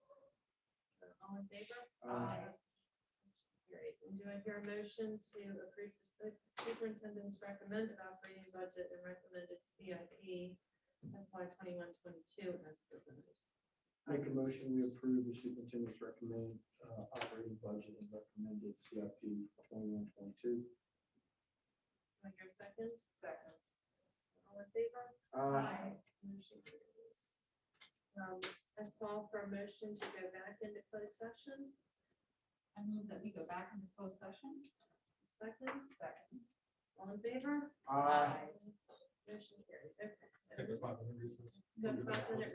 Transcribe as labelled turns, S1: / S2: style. S1: All in favor? Aye. Motion Carries. And do I hear a motion to approve the su- superintendent's recommended operating budget and recommended CIP FY twenty-one, twenty-two as presented?
S2: Make a motion, we approve the superintendent's recommend, uh, operating budget and recommended CIP twenty-one, twenty-two.
S1: Do I hear a second? Second. All in favor?
S2: Uh,
S1: Motion carries. Um, I call for a motion to go back into closed session.
S3: I move that we go back into closed session.
S1: Second? Second. All in favor?
S2: aye.
S1: Motion carries. Okay, so
S4: Take a five minute recess.
S1: Go five minute